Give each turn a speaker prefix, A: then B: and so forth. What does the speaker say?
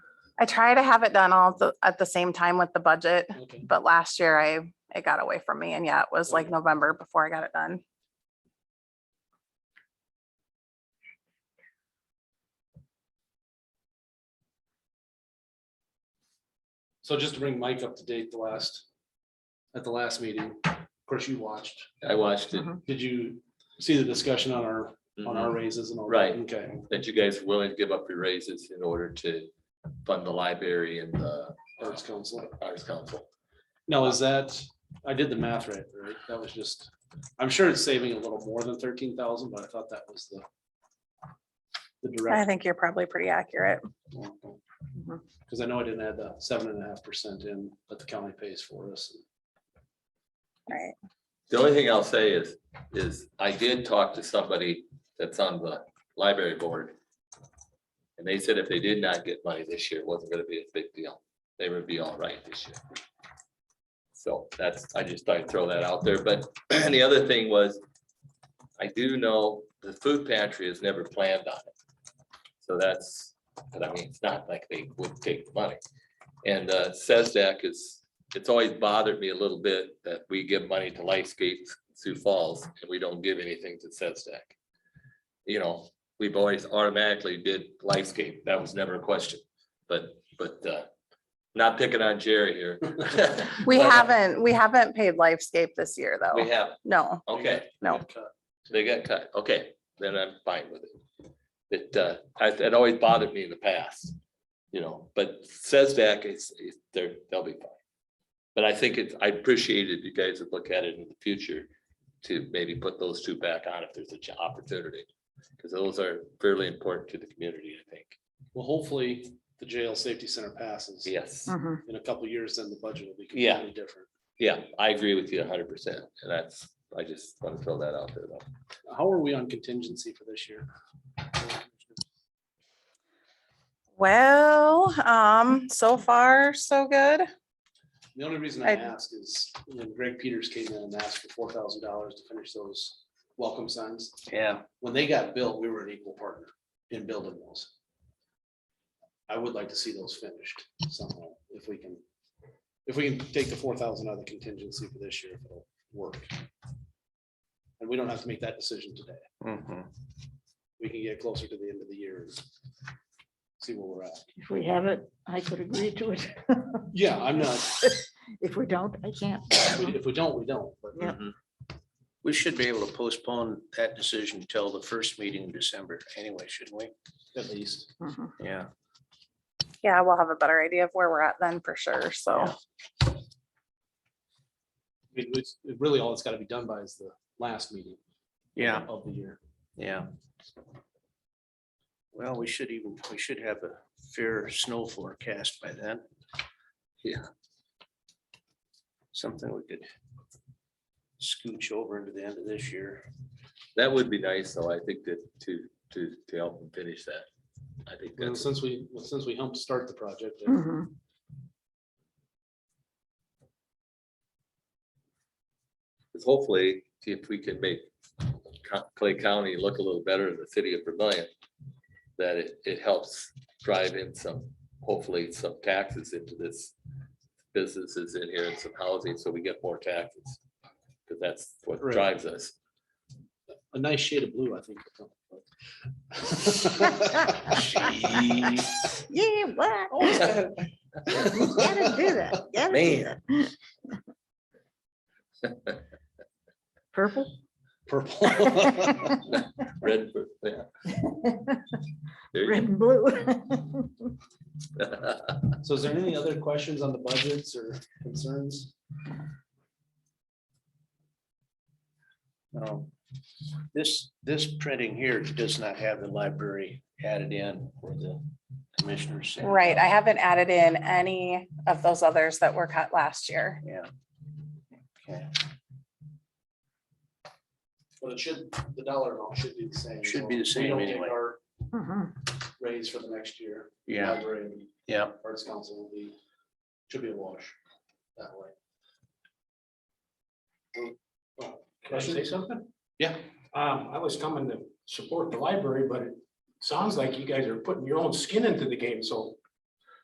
A: I try to have it done all the, at the same time with the budget,
B: Okay.
A: but last year I, it got away from me and yeah, it was like
B: Okay.
A: November before I got it done.
B: So just to bring Mike up to date, the last, at the last meeting, of course, you watched.
C: I watched it,
A: Mhm.
B: Did you see the discussion on our, on our
C: mhm,
B: raises and all? that?
C: Right.
B: Okay,
C: that you guys were willing to give up your raises in order to fund the library and the
B: Arts Council.
C: arts council.
B: Now, is that, I did the math right, right? That was just, I'm sure it's saving a little more than thirteen thousand, but I thought that was the the
A: I
B: direct,
A: think you're probably pretty accurate. Mhm.
B: because I know I didn't add the seven and a half percent in, but the county pays for us.
A: Right.
C: The only thing I'll say is, is I did talk to somebody that's on the library board. And they said if they did not get money this year, it wasn't gonna be a big deal. They would be all right this year. So that's, I just thought I'd throw that out there. But the other thing was, I do know the food pantry has never planned on it. So that's, but I mean, it's not like they would take the money. And SESDAC is it's always bothered me a little bit that we give money to Lightscape Sioux Falls and we don't give anything to Sedstack. You know, we've always automatically did Lightscape. That was never a question, but, but, uh, not picking on Jerry here.
A: We
C: But, uh,
A: haven't, we haven't paid Lifescape this year
C: We
A: though.
C: have,
A: No,
C: okay,
A: no.
C: they got cut, okay, then I'm fine with it. It, uh, I- it always bothered me in the past, you know, but Sedstack is, is- they're, they'll be fine. But I think it's, I appreciated you guys would look at it in the future to maybe put those two back on if there's an opportunity. Because those are fairly important to the community, I think.
B: Well, hopefully, the jail safety center passes.
C: Yes,
A: Mhm.
B: In a couple years, then the budget will be
C: Yeah.
B: completely different.
C: yeah, I agree with you hundred percent, and that's, I just want to throw that out there though.
B: How are we on contingency for this year?
A: Well, um, so far, so good.
B: The only reason
A: I-
B: I ask is when Greg Peters came in and asked for four thousand dollars to finish those welcome signs.
C: Yeah.
B: When they got built, we were an equal partner in building those. I would like to see those finished somehow, if we can, if we can take the four thousand out of the contingency for this year, if it'll work. And we don't have to make that decision today. We can get closer to the end of the year. and See where we're at.
D: If we have it, I could agree to it.
B: Yeah, I'm not,
D: If we don't, I can't.
B: if we- if we don't, we don't, but.
D: Yep.
E: We should be able to postpone that decision till the first meeting in December anyway, shouldn't we?
B: At least.
D: Mhm.
E: Yeah.
A: Yeah, we'll have a better idea of where we're at then for sure. So,
E: Yeah.
B: I mean, it's really all that's gotta be done by is the last meeting.
E: Yeah,
B: Of the year.
E: yeah. Well, we should even, we should have a fair snow forecast by then. Yeah. Something we could scooch over into the end of this year.
C: That would be nice, though, I think that to, to, to help them finish that. I think
E: Mm-hmm.
B: And
C: that's,
B: since we, well, since we helped start the project, uh,
D: Mhm.
C: because hopefully, if we can make Co- Clay County look a little better in the city of Vermillion, that it, it helps drive in some, hopefully, some taxes into this businesses in here and some housing, so we get more taxes. Because that's what
B: Right.
C: drives us.
B: a nice shade of blue, I think. would help.
D: Yeah, what?
B: Always
D: You
B: gotta-
D: Gotta do that. gotta do that. Purple?
B: Purple.
C: Red, yeah. There
D: Red
C: you
D: and blue.
C: go.
B: So is there any other questions on the budgets or concerns?
E: No. This, this printing here does not have the library added in or the commissioners. said.
A: right, I haven't added in any of those others that were cut last year.
E: Yeah. Okay.
B: But it should, the dollar amount should be the same.
E: Should
B: so
E: be the
B: we
E: same
B: don't take
E: anyway.
B: Our
D: Mhm.
B: raise for the next year.
E: Yeah,
B: library and
E: yeah.
B: Arts Council will be, should be a wash that way.
F: Can I say something?
B: Yeah.
F: Um, I was coming to support the library, but it sounds like you guys are putting your own skin into the game, so